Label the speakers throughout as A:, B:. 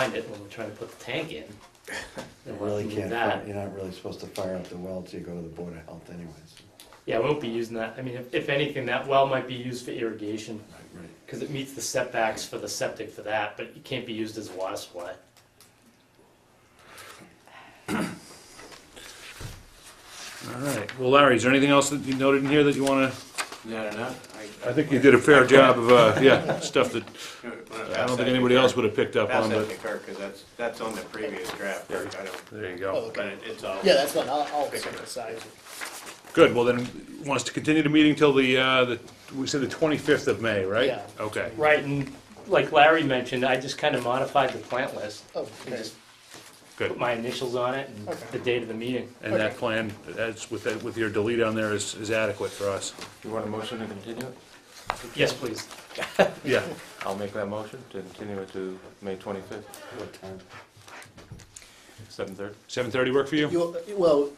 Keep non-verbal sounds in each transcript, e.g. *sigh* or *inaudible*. A: find it when we're trying to put the tank
B: *laughs*
A: in.
B: You
A: And we'll
B: really
A: do
B: can't,
A: that.
B: fi- you're not really supposed to fire up the well till you go to the Board of Health anyways.
A: Yeah, we won't be using that. I mean, if, if anything, that well might be used for irrigation
B: Right, right.
A: because it meets the setbacks for the septic for that, but it can't be used as a water supply.
C: All right. Well, Larry, is there anything else that you noted in here that you want to?
D: No, no, no.
C: I think you did a fair job of, uh, yeah, stuff that I don't think anybody else would have picked up
D: Pass
C: on,
D: that to
C: but
D: Kirk, because that's, that's on the previous draft, Kirk, I don't,
C: there you
E: Oh,
C: go.
D: but
E: okay.
D: it- it's all.
E: Yeah, that's fine. I'll, I'll set it aside.
C: Good. Well, then, want us to continue the meeting till the, uh, the, we said the 25th of May, right?
E: Yeah.
C: Okay.
A: Right, and like Larry mentioned, I just kind of modified the plant list.
E: Oh,
A: I
E: okay.
A: just
C: Good.
A: put my initials on it and
E: Okay.
A: the date of the meeting.
C: And that plan, that's with, that- with your delete on there is, is adequate for us.
F: You want a motion to continue it?
A: Yes, please.
C: Yeah.
F: I'll make that motion to continue it to May 25th,
B: What time?
F: 7:30.
C: 7:30 work for you?
E: You, well,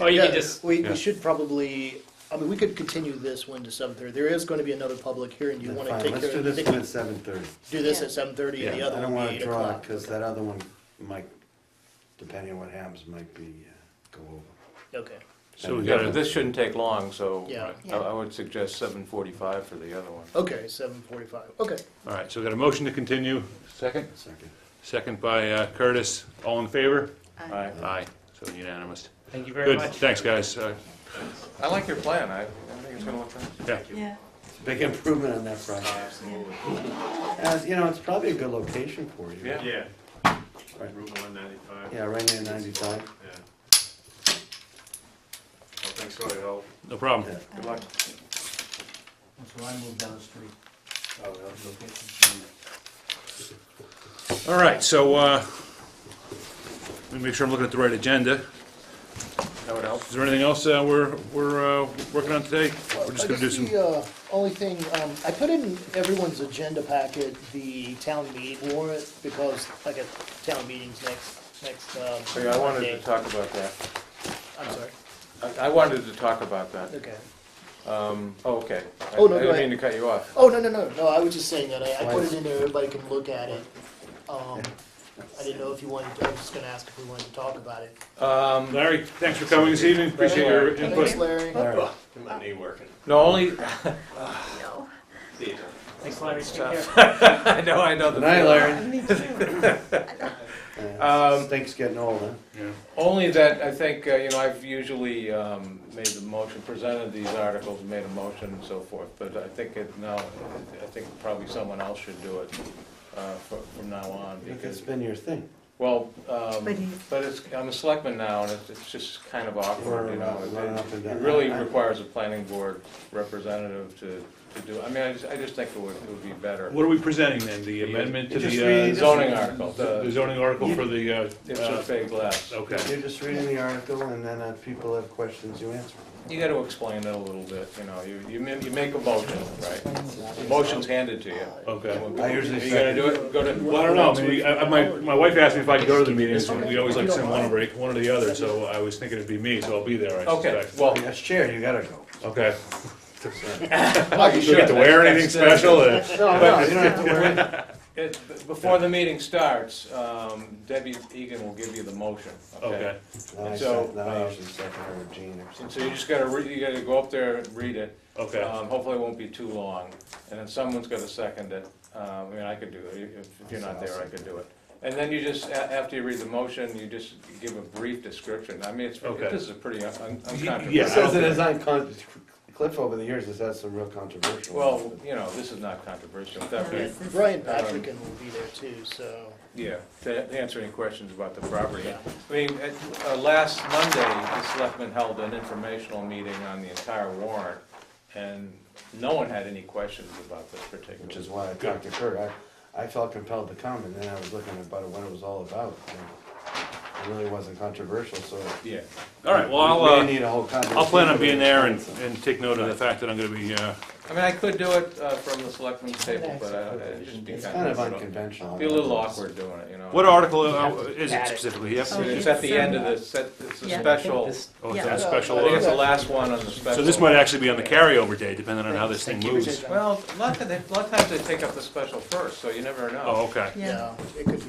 A: Oh, you
E: yeah,
A: can just,
E: we,
C: yeah.
E: we should probably, I mean, we could continue this one to seven thirty. There is going to be another public hearing. Do you
B: Then
E: want to
B: fine,
E: take
B: Let's
E: care
B: do
E: of
B: this
E: it?
B: one at seven thirty.
E: Do this at seven thirty and the
C: Yeah,
B: I
E: other
B: don't
E: one
B: wanna
E: be eight
B: draw it,
E: o'clock.
B: cause that other one might, depending on what happens, might be, uh, go over.
E: Okay,
C: So we
F: Yeah, but
C: gotta,
F: this shouldn't take long, so
E: Yeah.
F: I I would suggest 7:45 for the other one.
E: okay, seven forty-five. Okay.
C: all right, so we got a motion to continue,
F: Second?
B: Second.
C: second by uh, Curtis. All in favor?
F: Aye.
C: Aye. So unanimous.
A: thank you very
C: Good,
A: much.
C: thanks, guys. Uh,
F: I like your plan. I I think it's going to look nice.
G: Yeah,
B: Big improvement on that front.
D: Absolutely.
B: As, you know, it's probably a good location for you.
F: Yeah.
D: Yeah.
B: Right.
D: Route one ninety-five, yeah.
B: Yeah, right near ninety-five.
D: Well, thanks for your help.
C: No problem.
B: Yeah.
D: Good luck.
H: So I moved down the street.
D: Oh, yeah.
C: All right, so, uh, let me make sure I'm looking at the right agenda.
F: That would help.
C: Is there anything else uh, we're, we're uh, working on today? We're just
E: I
C: gonna do
E: guess
C: some,
E: The uh, only thing, um, I put in everyone's agenda packet, the town meeting warrant, because I got town meetings next, next, um.
F: So Oh, yeah, I wanted
E: Monday.
F: to talk about that.
E: I'm sorry,
F: I- I wanted to talk about that.
E: okay.
F: Um, Oh, okay. I-
E: Oh, no,
F: I
E: go
F: didn't
E: ahead.
F: mean to cut you off.
E: Oh, no, no, no, no, I was just saying that, I, I put it in there, everybody can look at it. Um, I didn't know if you wanted, to- I was just gonna ask if we wanted to talk about it.
F: Um,
C: Larry, thanks for coming this evening, appreciate your
E: Thanks,
C: input.
E: Larry.
B: All right.
D: My knee working.
F: No, only, *laughs*
G: no.
D: See you.
A: Thanks, Larry, take care.
F: I know, I know the
B: Good night, Larry.
G: Me too.
B: Uh, Stinks getting old, huh?
F: Only that, I think, uh, you know, I've usually um, made the motion, presented these articles, made a motion and so forth, but I think it now, I think probably someone else should do it uh, fro- from now on,
B: It's
F: because,
B: been your thing.
F: well, um,
G: But he-
F: but it's, I'm a selectman now, and it's- it's just kind of awkward, you know?
B: Running up and
F: It it
B: down.
F: really requires a planning board representative to to do, I mean, I just, I just think it would it would be better.
C: What are we presenting then, the amendment to
B: Just
C: the
B: read-
C: uh,
F: Zoning article,
C: the
F: the,
C: zoning article for the, uh,
F: it's
C: uh,
F: a big less.
C: okay.
B: You're just reading the article and then if people have questions, you answer.
F: You gotta explain it a little bit, you know, you, you ma- you make a motion, right? The motion's handed to you.
C: Okay.
F: Are
B: I
F: you
B: usually
F: gonna do it, go to,
C: Well, I don't know, I mean, we- I- I- my, my wife asked me if I could go to the meetings, and we always like send one over, one or the other, so I was thinking it'd be me, so I'll be there, I
F: okay,
C: suspect.
F: well,
B: Yes, chair, you gotta go.
C: Okay.
F: you
C: Do I have to wear anything *laughs* special? or-
B: No, no, you don't have to *laughs* worry.
F: It- Before the meeting starts, um, Debbie Egan will give you the motion,
C: Okay.
F: okay?
B: Then I
F: So,
B: sec- then I
F: uh,
B: usually second her with Gene or
F: And
B: something.
F: so you just gotta, re- you gotta go up there and read it.
C: Okay.
F: Um, Hopefully it won't be too long, and then someone's gonna second it, um, I mean, I could do it, if if you're not there, I could do it. And then you just, a- after you read the motion, you just give a brief description, I mean, it's,
C: Okay.
F: this is a pretty un- un-
C: yeah,
B: He says
F: uncontroversial.
B: it is uncon, Cliff over the years has had some real controversial. ones,
F: Well,
B: but-
F: you know, this is not controversial,
G: No,
F: that,
G: this is-
E: Brian Patrick will be there too, so,
F: yeah, to answer any questions about the property.
E: yeah.
F: I mean, at, uh, last Monday, the selectmen held an informational meeting on the entire warrant, and no one had any questions about this particular.
B: Which is why I talked to Kurt. I, I felt compelled to come and then I was looking about what it was all about. and It really wasn't controversial, so.
F: Yeah,
C: All right, well,
B: We
C: I'll,
B: may
C: uh,
B: need a whole conversation.
C: I'll plan on being there and, and take note of the fact that I'm gonna be, uh,
F: I mean, I could do it uh, from the selectmen's table, but I- it'd just be
B: It's
F: kind of,
B: unconventional.
F: be a little awkward doing it, you know?
C: What article uh,
A: have to
C: is it
A: add it. Oh,
C: specifically? Yes.
F: I mean, It's at the end of the, set- it's a
G: Yeah.
F: special, I
C: Oh, it's
G: Yeah.
C: a special.
F: think it's the
C: uh,
F: last one on the special.
C: So this might actually be on the carryover day, depending on how this thing
E: Keep it
C: moves.
E: in.
F: Well, a lot of, they- a lot of times they take up the special first, so you never know.
C: Oh, okay.
G: Yeah.
E: Yeah, it could be